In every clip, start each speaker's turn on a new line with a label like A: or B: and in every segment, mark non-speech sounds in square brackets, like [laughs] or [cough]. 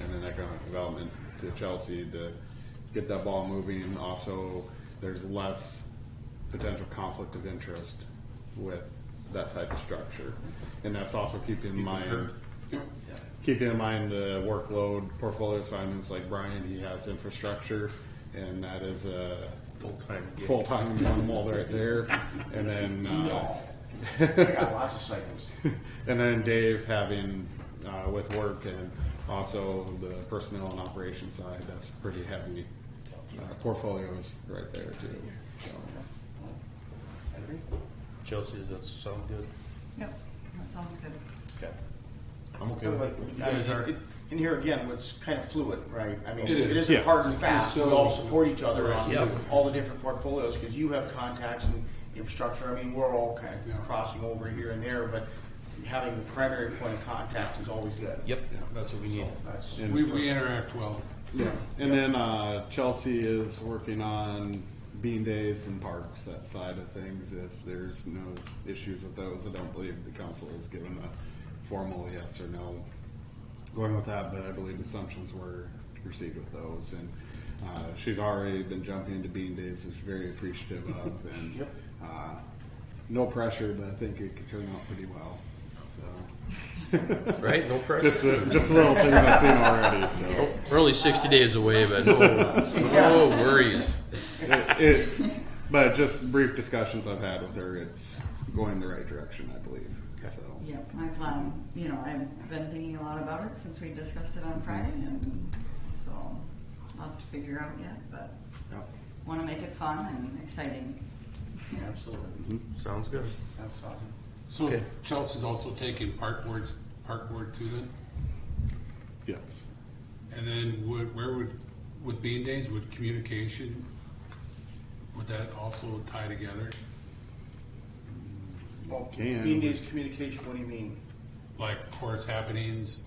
A: and then economic development to Chelsea to get that ball moving. Also, there's less potential conflict of interest with that type of structure. And that's also keeping in mind, keeping in mind the workload portfolio assignments like Brian, he has infrastructure and that is a
B: [laughs]
C: Full-time gig.
A: full-time animal right there. And then, uh,
B: I got lots of cycles.
A: [laughs] and then Dave having uh, with work and also the personnel and operations side, that's pretty heavy uh, portfolios right there too. So,
B: Henry?
C: Chelsea, does that sound good?
D: Yep, that sounds good.
C: I'm okay with
B: But,
C: it. You
B: I mean,
C: guys are,
B: uh, it- And here again, it's kind of fluid, right? I mean,
E: It
B: it
E: is,
B: isn't
A: yes.
B: hard and fast. We
E: So-
B: all support each other on
C: Yeah.
B: all the different portfolios because you have contacts and infrastructure. I mean, we're all kind
E: Yeah.
B: of crossing over here and there, but having the primary point of contact is always good.
C: yep, that's what we need.
B: That's,
E: We, we interact well.
A: yeah. And then uh, Chelsea is working on bean days and parks, that side of things. If there's no issues with those, I don't believe the council has given a formal yes or no going with that, but I believe assumptions were received with those. And uh, she's already been jumping into bean days, which is very appreciative of, and
B: Yep.
A: uh, no pressure, but I think it could turn out pretty well. So
C: Right, no pressure.
A: just uh, just little things I've seen already. So.
C: We're only sixty days away, but
E: [laughs]
C: no, no worries.
A: it, it, but just brief discussions I've had with her, it's going the right direction, I believe. So
D: Yep, I plan, you know, I've been thinking a lot about it since we discussed it on Friday and so lots to figure out yet, but
A: yep.
D: want to make it fun and exciting.
B: absolutely.
C: Sounds good.
B: That's awesome.
E: So
C: Okay.
E: Chelsea's also taking park boards, park board too then?
A: yes,
E: And then would, where would, with bean days, would communication, would that also tie together?
B: Well,
A: Can-
B: Bean Days communication, what do you mean?
E: Like course happenings?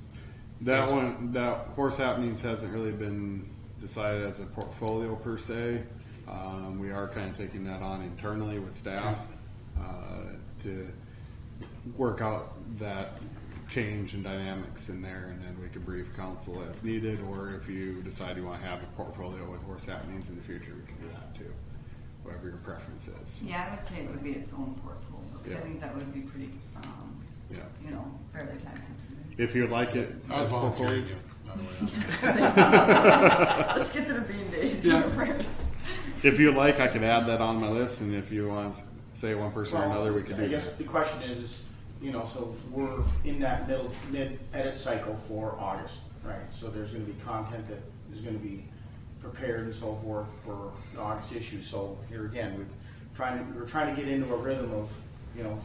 A: that
E: Yes.
A: one that horse happenings hasn't really been decided as a portfolio per se. Um, we are kind of taking that on internally with staff uh, to work out that change and dynamics in there, and then we can brief council as needed. Or if you decide you want to have a portfolio with horse happenings in the future, we can do that too. Whatever your preference is.
D: Yeah, I would say it would be its own portfolio, 'cause
A: Yeah.
D: I think that would be pretty, um,
A: Yeah.
D: you know, fairly time consuming.
A: If you'd like it,
E: I was
A: as portfolio-
E: volunteering you, by the way.
D: Let's get to the bean days
E: Yeah.
D: [laughs] first.
A: if you like, I could add that on my list. And if you want to say one person or
B: Well,
A: another, we could do
B: I guess
A: that.
B: the question is, is, you know, so we're in that middle, mid edit cycle for August, right? So there's gonna be content that is gonna be prepared and so forth for the August issue, so here again, we're trying to, we're trying to get into a rhythm of, you know,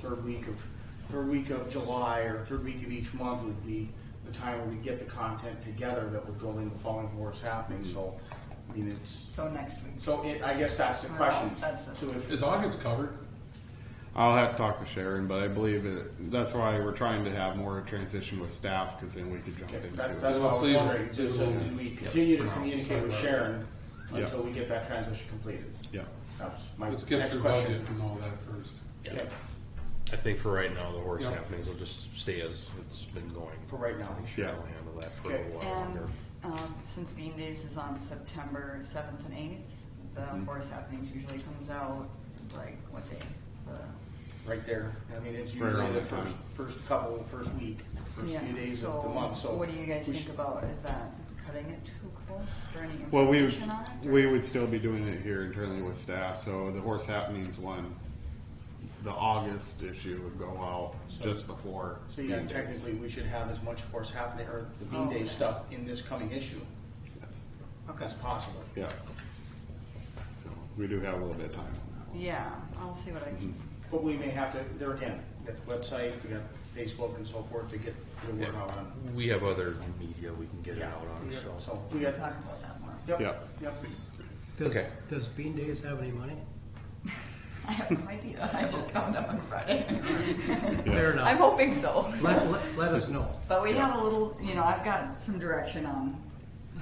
B: third week of, third week of July or third week of each month would be the time where we get the content together that would go in the following what's happening, so, I mean, it's,
D: So next week.
B: so it, I guess that's the question.
D: That's it.
B: So if,
E: Is August covered?
A: I'll have to talk to Sharon, but I believe it, that's why we're trying to have more transition with staff because then we could jump
B: Okay,
A: into
B: that,
A: it.
B: that's what I
E: Let's
B: was
E: leave it.
B: wondering, so so
E: Yeah.
B: we continue to
E: Yeah.
B: communicate with Sharon
A: Yeah.
B: until we get that transition completed.
A: Yeah.
B: That's my
E: Let's get
B: next
E: through
B: question.
E: budget and all that first.
B: Yes,
F: I think for right now, the horse
E: Yeah.
F: happenings will just stay as it's been going.
B: for right now.
F: I'm sure
A: Yeah.
F: I'll handle that for a
B: Okay.
F: little while
D: And
F: longer.
D: um, since Bean Days is on September seventh and eighth, the Horse Happenings usually comes out like what day? The,
B: Right there. I mean, it's
A: Right
B: usually
A: around
B: the
A: that
B: first,
A: time.
B: first couple, first week, first
D: yeah.
B: few days
D: so
B: of the month, so.
D: what do you guys
B: we
D: think
B: should-
D: about? Is that cutting it too close for any information
A: Well, we would,
D: on it? or-
A: we would still be doing it here internally with staff, so the horse happenings one, the August issue would go out just before.
B: So yeah,
A: meetings.
B: technically, we should have as much course happening, or the
D: Oh,
B: Bean Day
D: okay.
B: stuff in this coming issue
A: Yes.
B: as possible.
A: Yeah. So we do have a little bit of time on that one.
D: Yeah, I'll see what I can.
B: But we may have to, there again, we got the website, we got Facebook and so forth to get the word out on.
F: We have other media we can get it out on,
B: Yeah,
F: so.
B: So we got,
D: Talk about that more.
B: yep,
A: Yeah.
B: yep.
G: Does,
F: Okay.
G: does Bean Days have any money?
D: [laughs] I have no idea.
B: [laughs]
D: I just found out on Friday.
G: Fair
D: I'm
G: enough.
D: hoping so.
G: Let, let, let us know.
D: But we have a little, you know, I've got some direction on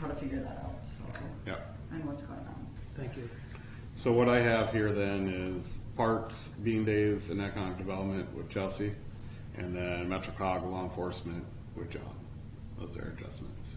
D: how to figure that out. So
A: Yeah.
D: and what's going on.
G: Thank you.
A: So what I have here then is parks, bean days, and economic development with Chelsea, and then MetroCog law enforcement with John. Those are adjustments.